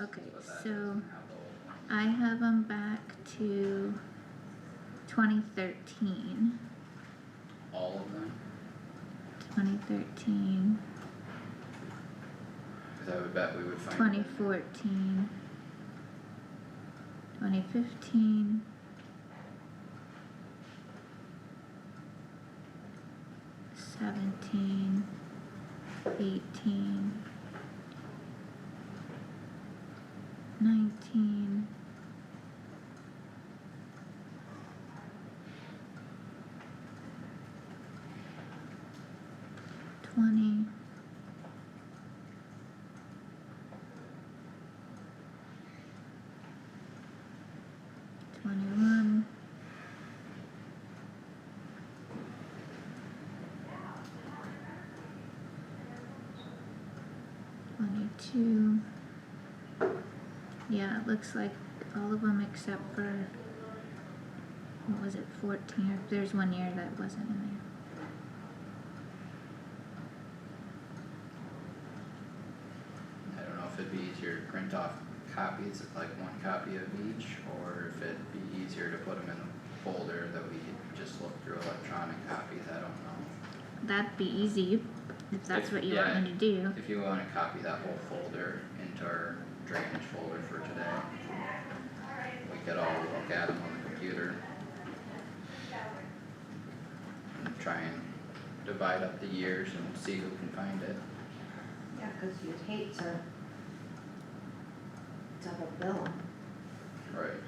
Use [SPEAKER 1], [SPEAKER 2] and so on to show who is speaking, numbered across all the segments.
[SPEAKER 1] Okay,
[SPEAKER 2] But that doesn't have
[SPEAKER 1] so
[SPEAKER 2] the old one.
[SPEAKER 1] I have them back to twenty thirteen.
[SPEAKER 2] All of them,
[SPEAKER 1] 2013,
[SPEAKER 2] cause I would bet we would find.
[SPEAKER 1] 2014, 2015. Seventeen, eighteen, nineteen, twenty. Twenty-one. Twenty-two. Yeah, it looks like all of them except for, what was it, fourteen, or there's one year that wasn't in there.
[SPEAKER 2] I don't know if it'd be easier to print off copies, like one copy of each, or if it'd be easier to put them in a folder that we could just look through electronic copies, I don't know.
[SPEAKER 1] That'd be easy, you- if that's
[SPEAKER 2] If-
[SPEAKER 1] what you want me to do,
[SPEAKER 2] If you wanna copy that whole folder into our drainage folder for today, we could all look at them on the computer. And try and divide up the years and see who can find it.
[SPEAKER 3] Yeah, cause you'd hate to double bill 'em
[SPEAKER 2] Right.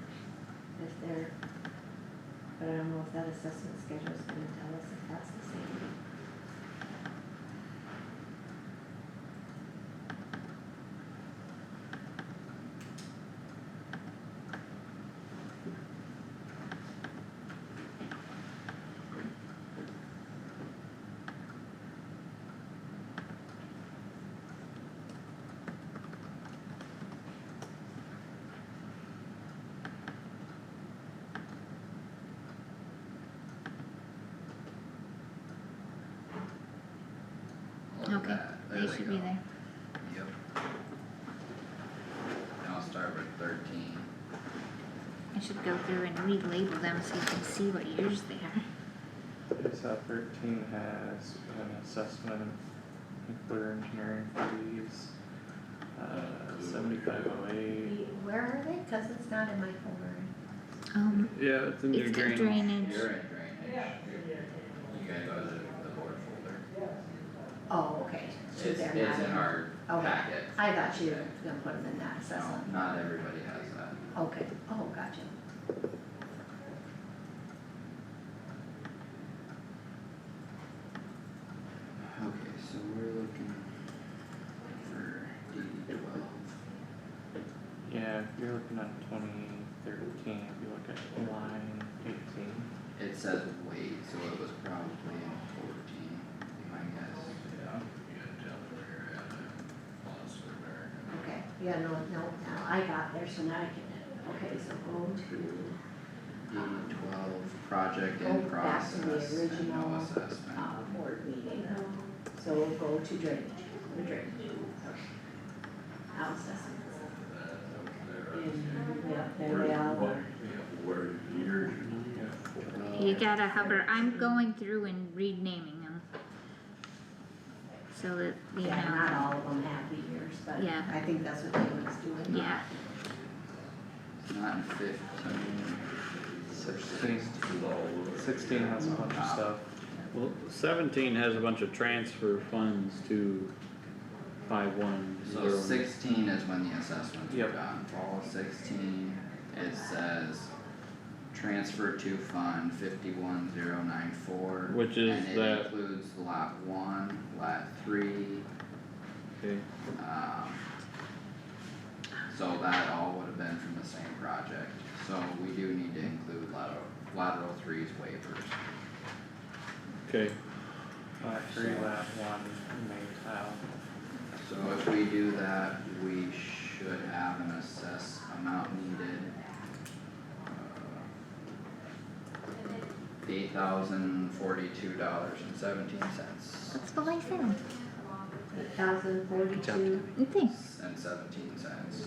[SPEAKER 3] if they're, but I don't know if that assessment schedule's gonna tell us if that's the same.
[SPEAKER 2] Look at
[SPEAKER 1] Okay,
[SPEAKER 2] that. There
[SPEAKER 1] they
[SPEAKER 2] we
[SPEAKER 1] should be
[SPEAKER 2] go.
[SPEAKER 1] there.
[SPEAKER 2] Yep. And I'll start with thirteen.
[SPEAKER 1] I should go through and relabel them so you can see what years they are.
[SPEAKER 4] I saw thirteen has an assessment of nuclear engineering fees. Uh, seventy-five oh eight.
[SPEAKER 3] You- Where are they? Cause it's not in my folder.
[SPEAKER 1] Um,
[SPEAKER 5] Yeah, it's in your
[SPEAKER 1] it's the
[SPEAKER 5] drainage.
[SPEAKER 2] You're
[SPEAKER 1] drainage,
[SPEAKER 2] in drainage. You gotta go to the, the board folder.
[SPEAKER 3] Oh, okay, so
[SPEAKER 2] It's,
[SPEAKER 3] they're not in.
[SPEAKER 2] it's in our
[SPEAKER 3] Okay.
[SPEAKER 2] packet.
[SPEAKER 3] I thought you were gonna put them in that
[SPEAKER 2] No,
[SPEAKER 3] assessment.
[SPEAKER 2] not everybody has that.
[SPEAKER 3] Okay, oh, gotcha.
[SPEAKER 2] Okay, so we're looking for D twelve.
[SPEAKER 4] Yeah, if you're looking at twenty thirteen, if you look at line eighteen.
[SPEAKER 2] It says wait, so it was probably in fourteen, my guess.
[SPEAKER 6] Yeah, you gotta tell them where you're at, uh, Monster America.
[SPEAKER 3] Okay, yeah, no, no, now I got there, so now I can, okay, so go to,
[SPEAKER 2] D E twelve, project
[SPEAKER 3] Go
[SPEAKER 2] in
[SPEAKER 3] back to
[SPEAKER 2] process and
[SPEAKER 3] the
[SPEAKER 2] no
[SPEAKER 3] original,
[SPEAKER 2] assessment.
[SPEAKER 3] uh, board meeting. So we'll go to drainage, go to drainage. Now assessments. And, uh, yeah, there they all
[SPEAKER 6] What,
[SPEAKER 3] are.
[SPEAKER 6] where years you got
[SPEAKER 1] you gotta hover, I'm going through and renaming them. So that, you
[SPEAKER 3] Yeah,
[SPEAKER 1] know,
[SPEAKER 3] not all of them have the years, but
[SPEAKER 1] Yeah.
[SPEAKER 3] I think that's what they was doing.
[SPEAKER 1] yeah,
[SPEAKER 2] Not in fifteen,
[SPEAKER 4] Sixteen.
[SPEAKER 6] for all of it.
[SPEAKER 4] Sixteen has a bunch of stuff.
[SPEAKER 5] Well, seventeen has a bunch of transfer funds to five one
[SPEAKER 2] So
[SPEAKER 5] zero.
[SPEAKER 2] sixteen is when the assessments were
[SPEAKER 4] Yep.
[SPEAKER 2] done, fall of sixteen, it says transfer to fund fifty-one zero nine four.
[SPEAKER 5] Which is
[SPEAKER 2] And it
[SPEAKER 5] that-
[SPEAKER 2] includes lot one, lot three,
[SPEAKER 5] Okay,
[SPEAKER 2] um. So that all would have been from the same project, so we do need to include lateral, lateral three's waivers.
[SPEAKER 5] okay,
[SPEAKER 4] Lot uh, three, lab one, main tile.
[SPEAKER 2] So if we do that, we should have an assess amount needed. Uh, Eight thousand forty-two dollars and seventeen cents
[SPEAKER 1] that's what I said,
[SPEAKER 3] Eight thousand forty-two,
[SPEAKER 1] thanks.
[SPEAKER 2] and seventeen cents.